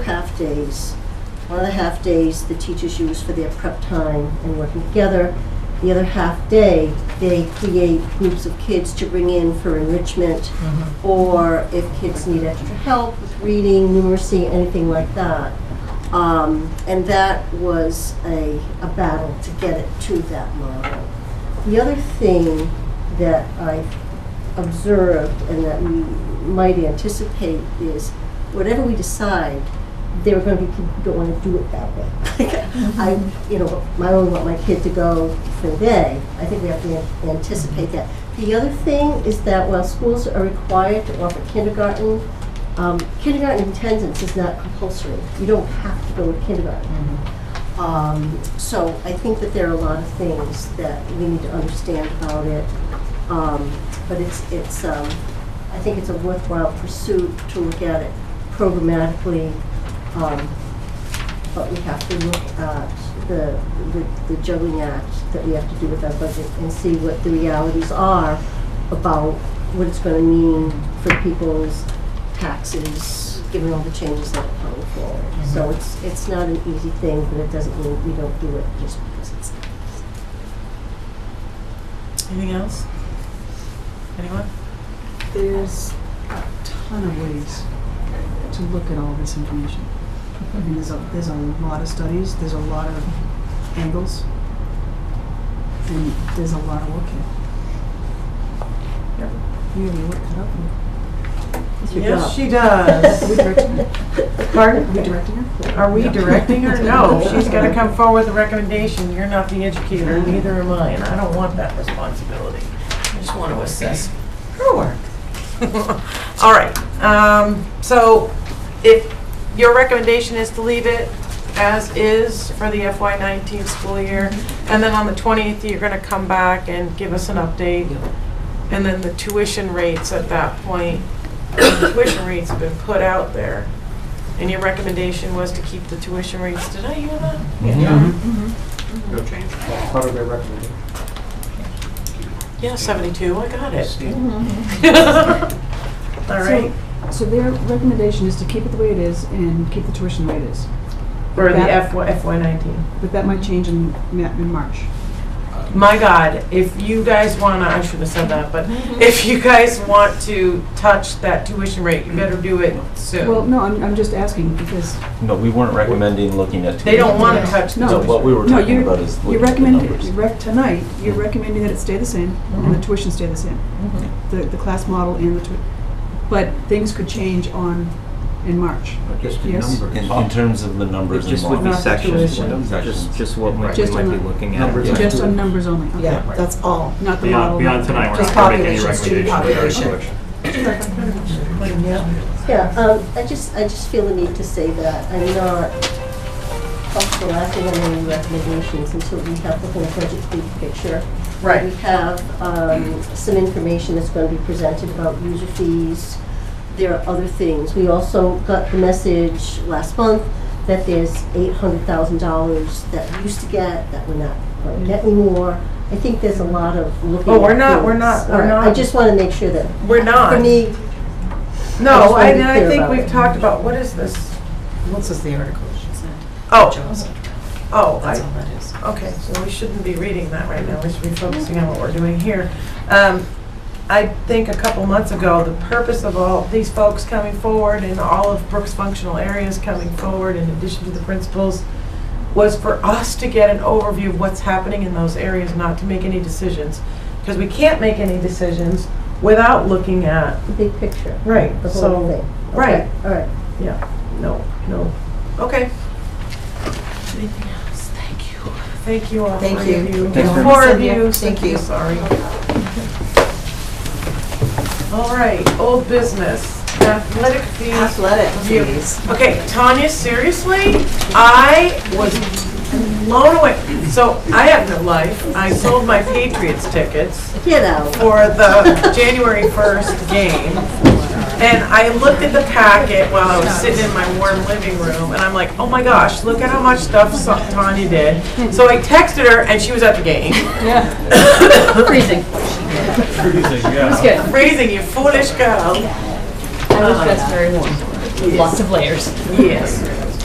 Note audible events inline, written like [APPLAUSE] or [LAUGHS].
days. One of the half days the teachers use for their prep time and working together. The other half day, they create groups of kids to bring in for enrichment or if kids need extra help with reading, numeracy, anything like that. Um, and that was a, a battle to get it to that model. The other thing that I observed and that we might anticipate is whatever we decide, there are going to be people who don't want to do it that way. [LAUGHS] I, you know, I only want my kid to go for a day. I think we have to an- anticipate that. The other thing is that while schools are required to offer kindergarten, um, kindergarten attendance is not compulsory. You don't have to go to kindergarten. Um, So I think that there are a lot of things that we need to understand about it. Um, But it's, it's, um, I think it's a worthwhile pursuit to look at it programmatically. um, But we have to look at the, the- the juggling act that we have to do with our budget and see what the realities are about what it's going to mean for people's taxes, given all the changes that are coming forward. So it's, it's not an easy thing, but it doesn't mean we don't do it just because it's. Anything else? Anyone? There's a ton of ways to look at all this information. I mean, there's a, there's a lot of studies, there's a lot of angles, and there's a lot of work here. You have your work cut out for you. it's your Yes, job. [LAUGHS] she Are we directing her? Are does. Pardon? [LAUGHS] we directing her? Are we directing her? [LAUGHS] No, she's gotta come forward with a recommendation. You're not the educator, neither am I, and I don't want that responsibility. Mm-hmm. I just want to assess her work. [LAUGHS] All right, um, so if your recommendation is to leave it as is for the FY nineteen school year, and then on the twentieth, you're gonna come back and give us an update. And then the tuition rates at that point, [COUGHS] the tuition rates have been put out there. And your recommendation was to keep the tuition rates, did I hear that? Yeah. No change. Part of their recommendation. Yeah, seventy-two, I got Mm-hmm. [LAUGHS] it. All right. So their recommendation is to keep it the way it is and keep the tuition the way it is. For the That- FY, FY nineteen. But that might change in, Ma- in March. My God, if you guys wanna, I shouldn't have said that, but if you guys want to touch that tuition rate, you better do it Well, soon. no, I'm, I'm just asking because No, we weren't recommending looking at. They don't wanna touch the No. So what tuition. we were No, talking you're, about is you're looking at the recommending, numbers. Mm-hmm. you're rec- tonight, you're recommending that it stay the same, and the tuition stay the same. Mm-hmm. The, the class model and the tui, but things could change on, in March. Just the Yes. numbers. In, in terms of the numbers and Just would be Not models. the sections, tuition. just, just what we might be Just on the- looking at. [LAUGHS] Numbers. Yeah. Just on numbers only, okay. Yeah, that's all. Not the model. Beyond, not- beyond tonight, we're Just not gonna make any population, student recommendations regarding population. tuition. Yeah, um, I just, I just feel the need to say that I'm not comfortable acting on any recommendations until we have the whole budget big picture. Right. We have, um, some information that's gonna be presented about user fees. There are other things. We also got the message last month that there's eight hundred thousand dollars that we used to get, that we're not gonna get anymore. I think there's a lot of looking Mm-hmm. Oh, we're at not- we're things. not- we're All right, I not- just wanna make sure that, We're not. for me, I No, just wanna I, be and I clear think about we've it. talked about, what is this? What's this, the article she sent? Oh, Jobs. oh, That's all I, that is. okay, so we shouldn't be reading that right now, we should be focusing on what we're doing here. Um, I think a couple months ago, the purpose of all these folks coming forward and all of Brooks' functional areas coming forward in addition to the principals was for us to get an overview of what's happening in those areas, not to make any decisions. Because we can't make any decisions without looking at, the big picture. right, the whole so, thing. right, All right. yeah, no, no, okay. Anything else? Thank you. Thank you all, three Thank of you. you. Thanks very Four much. of you, Thank Cynthia, you. sorry. [LAUGHS] All right, old business, athletic fees. Athletic You- fees. Okay, Tanya, seriously, I was blown away. So I have no life. I sold my Patriots tickets Get out. for the January 1st game. And I looked at the packet while I was sitting in my warm living room, and I'm like, oh my gosh, look at how much stuff so- Tanya did. So I texted her, and she was at the game. [LAUGHS] Freezing. Yeah. Raising you foolish girl. I was dressed very warm, with lots of layers. Uh, Yes.